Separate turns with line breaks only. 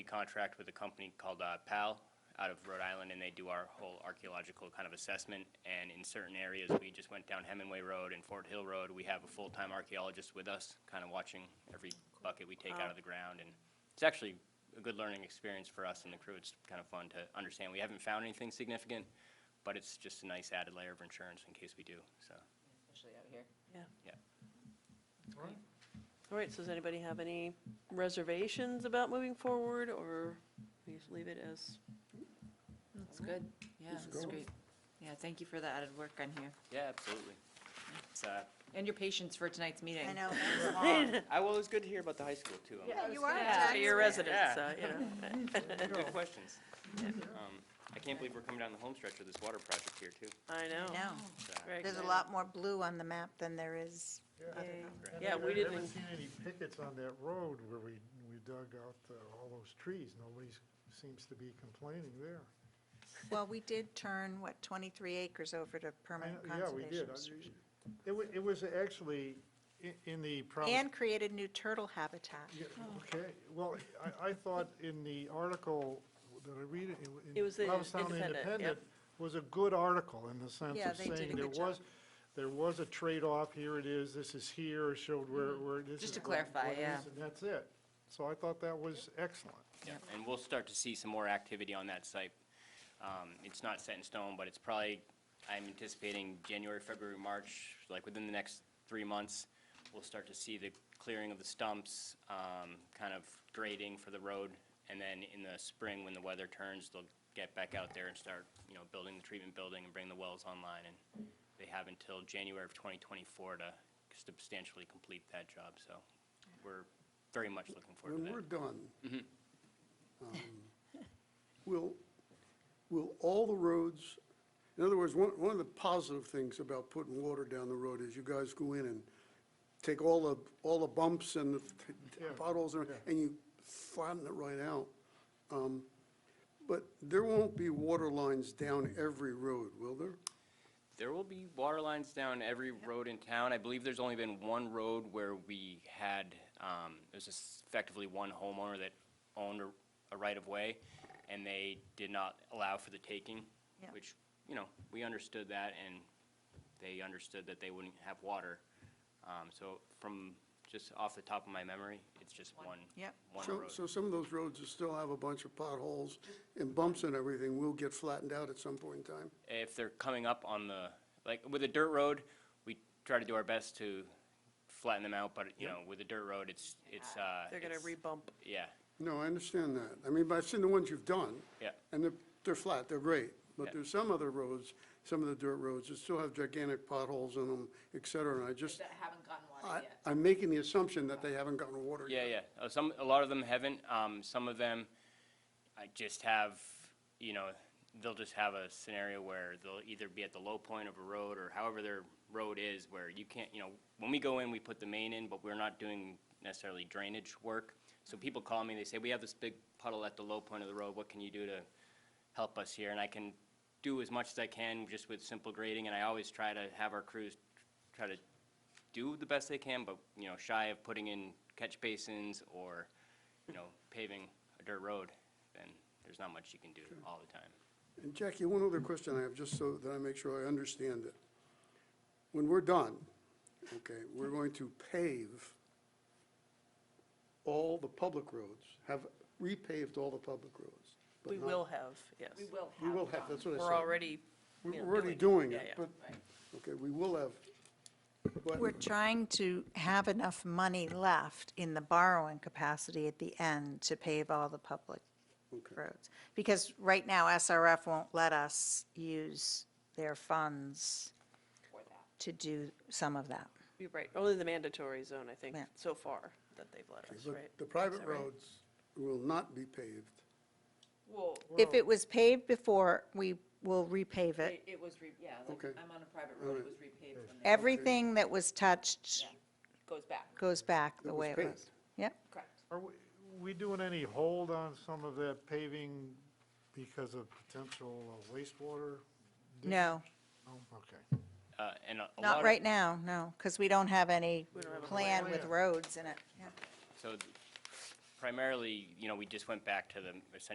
contract with a company called uh, PAL out of Rhode Island, and they do our whole archaeological kind of assessment. And in certain areas, we just went down Hemingway Road and Fort Hill Road. We have a full-time archaeologist with us, kind of watching every bucket we take out of the ground. And it's actually a good learning experience for us and the crew. It's kind of fun to understand. We haven't found anything significant, but it's just a nice added layer of insurance in case we do, so,
especially out here.
yeah.
All right, so does anybody have any reservations about moving forward, or we just leave it as,
That's good. Yeah, that's great. Yeah, thank you for the added work on here
Yeah, absolutely. It's, uh,
and your patience for tonight's meeting.
I know, that's long.
I, well, it's good to hear about the high school, too. I'm-
Yeah, you are a
yeah, for your
taxpayer.
residents,
Yeah.
uh, you know?
Good questions. Um, I can't believe we're coming down the home stretch with this water project here, too.
I know.
No,
It's, uh,
Very
there's a
exciting.
lot more blue on the map than there is.
Yay.
Right.
Yeah, we
I haven't
didn't,
seen any pickets on that road where we, we dug out uh, all those trees. Nobody seems to be complaining there.
Well, we did turn, what, 23 acres over to
I know-
permanent
Yeah, we
conservation.
did. I- It was, it was actually i- in the. prob-
And created new turtle habitat.
Yeah, Okay, well, I, I thought in the article, that I read? It in
It was the
Provincetown
Independent, yep.
Was a good article in the sense
Yeah,
of
they did
saying
a
there
good job.
was, there was a trade-off, here it is, this is here, showed where, where this is.
Just to
what-
clarify,
what it
yeah.
is, And that's it. So I thought that was excellent.
Yeah, and we'll start to see some more activity on that site. Um, It's not set in stone, but it's probably, I'm anticipating January, February, March, like within the next three months, we'll start to see the clearing of the stumps, um, kind of grading for the road. And then in the spring, when the weather turns, they'll get back out there and start, you know, building the treatment building and bring the wells online. And they have until January of 2024 to substantially complete that job, so we're very much looking forward to that.
When we're done,
Mm-hmm.
um, will, will all the roads, in other words, one, one of the positive things about putting water down the road is you guys go in and take all the, all the bumps and the t- t-
Yeah,
potholes and- and you flatten it right out. Um, But there won't be water lines down every road, will there?
There will be water lines down every road in town. I believe there's only been one road where we had, um, it was just effectively one homeowner that owned a, a right-of-way, and they did not allow for the taking,
Yeah.
which, you know, we understood that, and they understood that they wouldn't have water. Um, so from, just off the top of my memory, it's just one,
Yep.
one
So,
road.
so some of those roads that still have a bunch of potholes and bumps and everything will get flattened out at some point in time?
if they're coming up on the, like, with a dirt road, we try to do our best to flatten them out, but, you know, with a dirt road, it's, it's, uh.
Ah, they're gonna
it's-
rebump.
Yeah,
No, I understand that. I mean, but I've seen the ones you've done.
Yeah.
And they're, they're flat, they're great.
Yeah.
But there's some other roads, some of the dirt roads that still have gigantic potholes in them, et cetera, and I just,
haven't gotten
I, I'm making the assumption that they haven't gotten water
yeah,
yet.
yeah. Uh, Some, a lot of them haven't, um, some of them, I just have, you know, they'll just have a scenario where they'll either be at the low point of a road or however their road is where you can't, you know, when we go in, we put the main in, but we're not doing necessarily drainage work. So people call me, they say, we have this big puddle at the low point of the road, what can you do to help us here? And I can do as much as I can just with simple grading, and I always try to have our crews try to do the best they can, but, you know, shy of putting in catch basins or, you know, paving a dirt road, then there's not much you can do all the time.
And Jackie, one other question I have, just so that I make sure I understand it. When we're done, okay, we're going to pave all the public roads, have repaved all the public roads. but
We
not-
will have, yes.
We will
We
have.
will have, that's what I said.
We're already, you
We're
know,
already doing
yeah,
it,
yeah.
but, okay, we will have,
We're
but,
trying to have enough money left in the borrowing capacity at the end to pave all the public roads. Because right now SRF won't let us use their funds to do some of that.
You're right, only the mandatory zone, I think,
Yeah.
so far, that they've let us,
but
right?
the private roads will not be paved.
Well,
If it was paved before, we will repave it.
it was, re- yeah, like,
Okay.
I'm on a private road, it was repaved from there.
Everything that was touched
Goes back,
goes back the
was
way it
paved.
was. Yep.
correct.
Are we, we doing any hold on some of that paving because of potential uh, wastewater? dis-
No,
No? Okay.
Uh, and a a lot
not
of-
right now, no, because we don't have any
don't have a
plan with
plan.
roads in it. Yeah.
So th- primarily, you know, we just went back to the, essentially